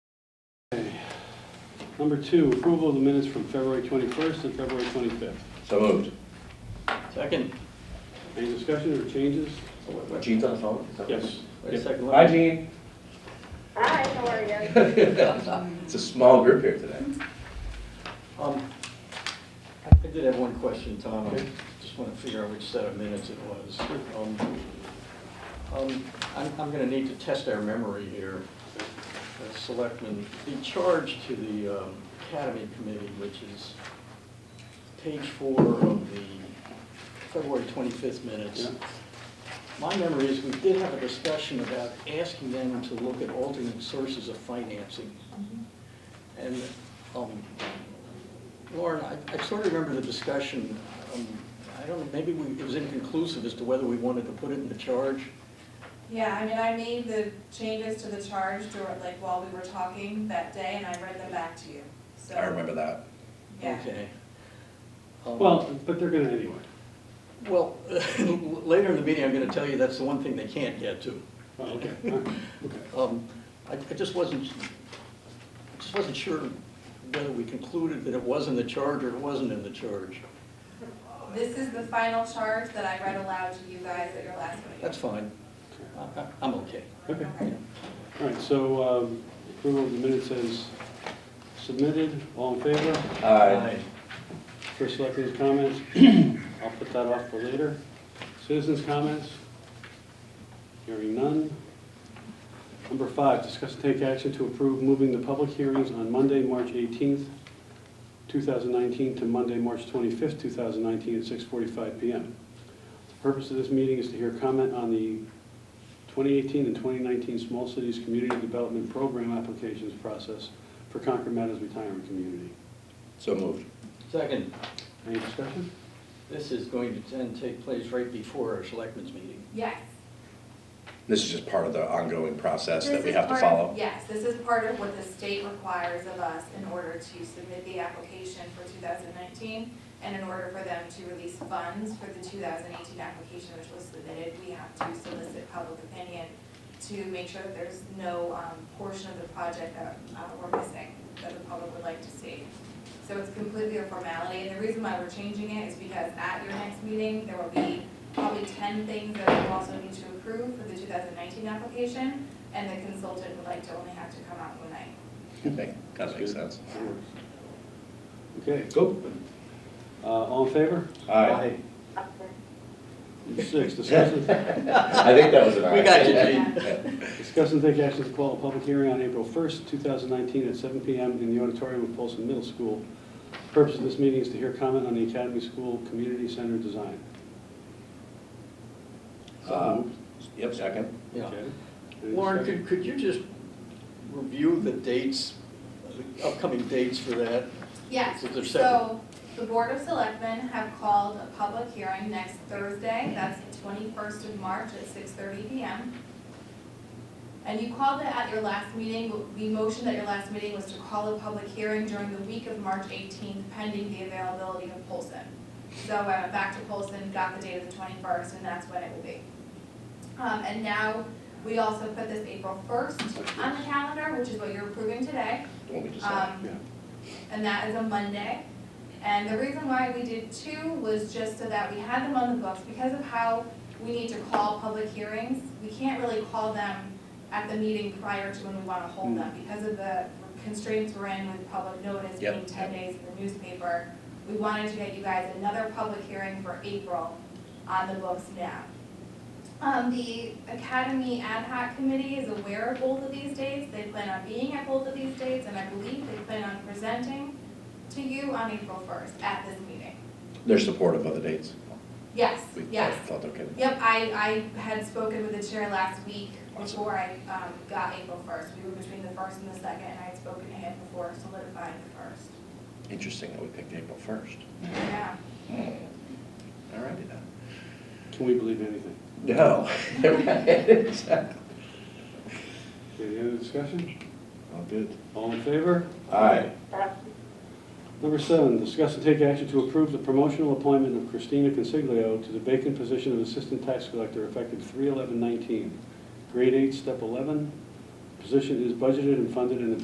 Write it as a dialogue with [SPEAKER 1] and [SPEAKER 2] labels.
[SPEAKER 1] Number two, approval of the minutes from February 21st and February 25th.
[SPEAKER 2] So moved.
[SPEAKER 3] Second.
[SPEAKER 1] Any discussion or changes?
[SPEAKER 3] So wait, wait,
[SPEAKER 2] Gene's on the phone? Is that what it is?
[SPEAKER 1] Yes.
[SPEAKER 3] wait a second.
[SPEAKER 2] Hi, Gene.
[SPEAKER 4] Hi, how are you?
[SPEAKER 2] It's a small group here today.
[SPEAKER 3] Um, I did have one question, Tom. I just want to figure out which set of minutes it was. Um, um, I'm, I'm going to need to test our memory here. Uh, Selectmen, the charge to the um, Academy Committee, which is page four of the February 25th minutes.
[SPEAKER 1] Yeah.
[SPEAKER 3] My memory is we did have a discussion about asking them to look at alternate sources of financing. And um, Lauren, I- I sort of remember the discussion, um, I don't, know, maybe we- it was inconclusive as to whether we wanted to put it in the charge.
[SPEAKER 5] Yeah, I mean, I made the changes to the charge during, like, while we were talking that day, and I read them back to you, so.
[SPEAKER 2] I remember that.
[SPEAKER 5] Yeah.
[SPEAKER 3] Okay. Um,
[SPEAKER 1] Well, but they're going to anyway.
[SPEAKER 3] Well, later in the meeting, I'm going to tell you that's the one thing they can't get to.
[SPEAKER 1] Oh, okay, all right, okay.
[SPEAKER 3] Um, I I just wasn't, I just wasn't sure whether we concluded that it was in the charge or it wasn't in the charge.
[SPEAKER 5] This is the final charge that I read aloud to you guys at your last meeting.
[SPEAKER 3] That's fine. I- I- I'm okay.
[SPEAKER 1] Okay,
[SPEAKER 5] Okay.
[SPEAKER 1] all right, so um, approval of the minutes as submitted, all in favor?
[SPEAKER 2] Aye.
[SPEAKER 1] First selectmen's comments, I'll put that off for later. Citizens' comments, hearing none. Number five, discuss and take action to approve moving the public hearings on Monday, March 18th, 2019 to Monday, March 25th, 2019 at 6:45 PM. The purpose of this meeting is to hear comment on the 2018 and 2019 Small Cities Community Development Program applications process for Concord Meadows Retirement Community.
[SPEAKER 2] So moved.
[SPEAKER 3] Second,
[SPEAKER 1] Any discussion?
[SPEAKER 3] this is going to then take place right before our selectmen's meeting.
[SPEAKER 5] Yes.
[SPEAKER 2] This is just part of the ongoing process
[SPEAKER 5] This
[SPEAKER 2] that we
[SPEAKER 5] is
[SPEAKER 2] have to
[SPEAKER 5] part of-
[SPEAKER 2] follow.
[SPEAKER 5] Yes, this is part of what the state requires of us in order to submit the application for 2019, and in order for them to release funds for the 2018 application which was submitted, we have to solicit public opinion to make sure that there's no um, portion of the project that uh, we're missing, that the public would like to see. So it's completely a formality, and the reason why we're changing it is because at your next meeting, there will be probably 10 things that you also need to approve for the 2019 application, and the consultant would like to only have to come out one night.
[SPEAKER 2] Okay, That makes sense.
[SPEAKER 1] Okay,
[SPEAKER 2] Go.
[SPEAKER 1] uh, all in favor?
[SPEAKER 2] Aye.
[SPEAKER 1] Six, discuss and,
[SPEAKER 2] I think that was an aye.
[SPEAKER 3] We got you,
[SPEAKER 1] discuss and take action to call a public hearing on April 1st, 2019 at 7 PM in the auditorium of Polson Middle School. Purpose of this meeting is to hear comment on the Academy School Community Center design.
[SPEAKER 2] Uh, Yep, second.
[SPEAKER 3] Yeah.
[SPEAKER 1] Okay. Any
[SPEAKER 3] Lauren,
[SPEAKER 1] discussion?
[SPEAKER 3] could, could you just review the dates, the upcoming dates for that?
[SPEAKER 5] Yes,
[SPEAKER 3] So there's seven.
[SPEAKER 5] so the Board of Selectmen have called a public hearing next Thursday, that's the twenty-first of March at six thirty PM. And you called it at your last meeting, the motion at your last meeting was to call a public hearing during the week of March eighteenth pending the availability of Polson. So I went back to Polson, got the date of the twenty-first, and that's when it will be. Um, and now, we also put this April first on the calendar, which is what you're approving today.
[SPEAKER 2] Don't we just say?
[SPEAKER 5] Um,
[SPEAKER 1] Yeah.
[SPEAKER 5] and that is a Monday. And the reason why we did two was just so that we had them on the books, because of how we need to call public hearings, we can't really call them at the meeting prior to when we wanna hold them, because of the constraints we're in with public notice
[SPEAKER 2] Yep,
[SPEAKER 5] being ten days in the newspaper. We wanted to get you guys another public hearing for April on the books now. Um, the Academy Ad hoc Committee is aware of both of these dates, they plan on being at both of these dates, and I believe they plan on presenting to you on April first at this meeting.
[SPEAKER 2] They're supportive of the dates.
[SPEAKER 5] Yes,
[SPEAKER 2] We
[SPEAKER 5] yes.
[SPEAKER 2] Felt okay.
[SPEAKER 5] Yep, I, I had spoken with the chair last week before I, um, got April first. We were between the first and the second, and I had spoken to him before solidifying the first.
[SPEAKER 2] Interesting that we picked April first.
[SPEAKER 5] Yeah.
[SPEAKER 3] Hmm.
[SPEAKER 2] All righty then.
[SPEAKER 1] Can we believe anything?
[SPEAKER 2] No. Exactly.
[SPEAKER 1] Okay, any other discussion?
[SPEAKER 2] All good.
[SPEAKER 1] All in favor?
[SPEAKER 2] Aye.
[SPEAKER 1] Number seven, discuss and take action to approve the promotional appointment of Christina Consiglio to the vacant position of Assistant Tax Collector effective 3 11 grade eight, step eleven. Position is budgeted and funded in the